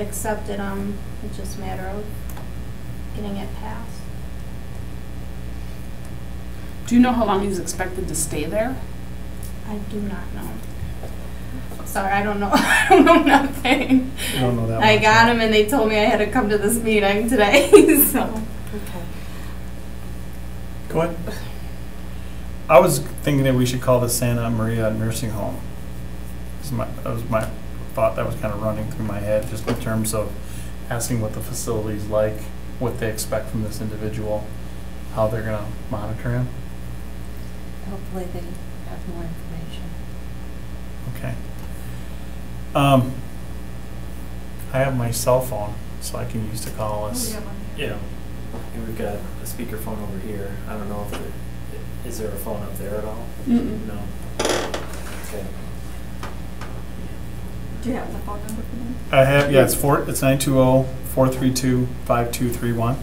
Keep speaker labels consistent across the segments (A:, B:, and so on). A: accepted them, it's just a matter of getting it passed.
B: Do you know how long he's expected to stay there?
A: I do not know. Sorry, I don't know, I don't know nothing.
C: I don't know that
A: I
C: much.
A: got them and they told me I had to come to this meeting today, so.
D: Okay.
C: Go ahead. I was thinking that we should call the Santa Maria Nursing Home. Is my, that was my thought that was kind of running through my head, just in terms of asking what the facility's like, what they expect from this individual, how they're gonna monitor him.
D: Hopefully they have more information.
C: Okay. Um, I have my cell phone, so I can use to call us.
E: Yeah, and we've got a speakerphone over here. I don't know if there, is there a phone up there at all?
B: Mm-mm.
E: No. Okay.
F: Do you have the phone number for them?
C: I have, yeah, it's four, it's nine two oh, four three two, five two three one.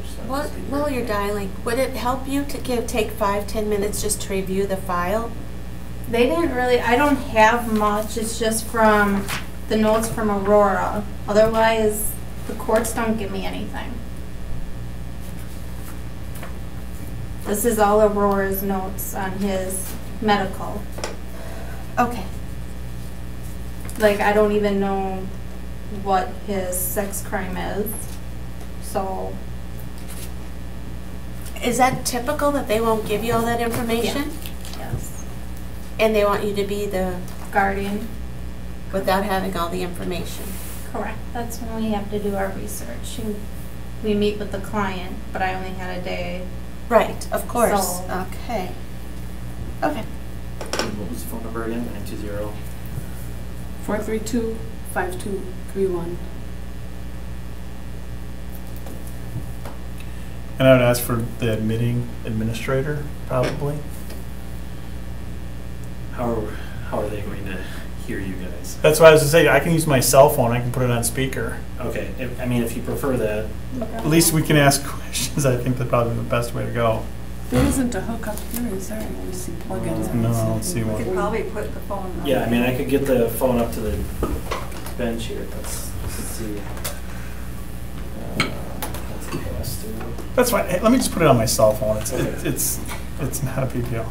E: There's not a
D: What,
E: speaker.
D: while you're dialing, would it help you to give, take five, ten minutes just to review the file?
A: They didn't really, I don't have much, it's just from the notes from Aurora. Otherwise, the courts don't give me anything. This is all Aurora's notes on his medical.
D: Okay.
A: Like, I don't even know what his sex crime is, so.
D: Is that typical that they won't give you all that information?
A: Yes.
D: And they want you to be the,
A: Guardian,
D: without having all the information?
A: correct. That's when we have to do our research. and We meet with the client, but I only had a day.
D: Right, of course.
A: So-
D: Okay. Okay.
E: What was the phone number again? Nine two zero.
B: Four three two five two three one.
C: And I would ask for the admitting administrator, probably.
E: How are, how are they going to hear you guys?
C: That's why I was gonna say, I can use my cell phone, I can put it on speaker.
E: Okay, if- I mean, if you prefer that,
C: At least we can ask questions, I think that's probably the best way to go.
B: There isn't a hookup here, is there? Let me see plugins.
C: Uh, No, I don't see
F: We
C: one.
F: could probably put the phone number.
E: yeah, I mean, I could get the phone up to the bench here. Let's, let's see. Uh, That's a pass through.
C: That's fine, Hey, let me just put it on my cell phone, it's, it's,
E: Okay.
C: it's it's not a big deal.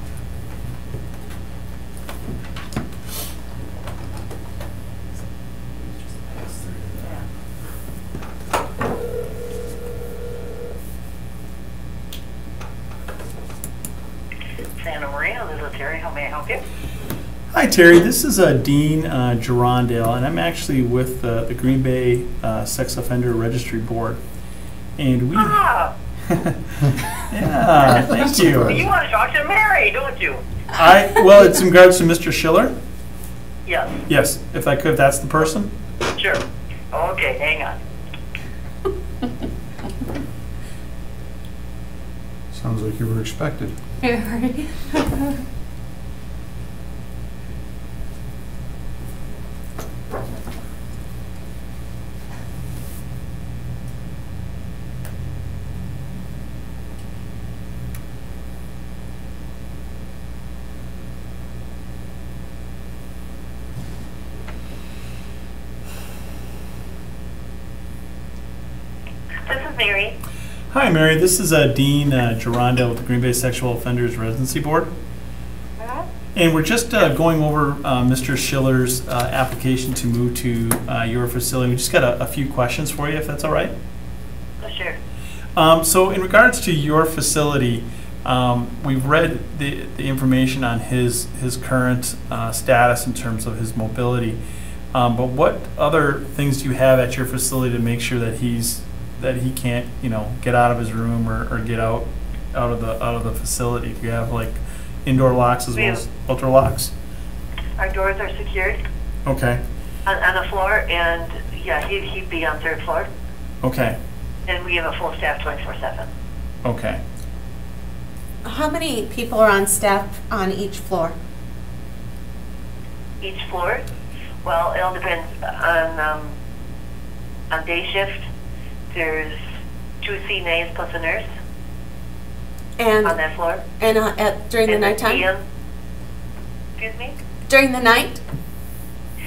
E: Just pass through there.
G: Santa Maria, this is Terry. How may I help you?
C: Hi Terry, this is uh, Dean uh, Gerondale, and I'm actually with the, the Green Bay uh, Sex Offender Registry Board. And we,
G: Ah,
C: yeah, thank
G: you
C: you.
G: want to talk to Mary, don't you?
C: I, well, it's in regards to Mr. Schiller?
G: Yes,
C: Yes, if I could, if that's the person?
G: sure. Okay, hang on.
H: Sounds like you were expected.
G: This is Mary.
C: Hi, Mary. This is uh, Dean uh, Gerondale with the Green Bay Sexual Offenders Residency Board. And we're just uh, going over uh, Mr. Schiller's uh, application to move to uh, your facility. We just got a, a few questions for you, if that's all right.
G: Oh, Sure.
C: Um, so, in regards to your facility, um, we've read the, the information on his his current uh, status in terms of his mobility. Um, but what other things do you have at your facility to make sure that he's that he can't you know get out of his room or, or get out out of the out of the facility? Do you have like indoor locks as well as outdoor locks?
G: Our doors are secured
C: Okay,
G: on, on the floor, and yeah, he, he'd be on third floor,
C: okay,
G: and we have a full staff 24/7.
C: okay.
D: How many people are on staff on each floor?
G: Each floor, well, it all depends on um, on day shift. There's two CNAs plus a nurse on
D: And,
G: that floor.
D: and uh, at, during the
G: And then
D: nighttime?
G: PM Excuse me.
D: During the night?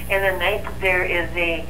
G: And the night there is a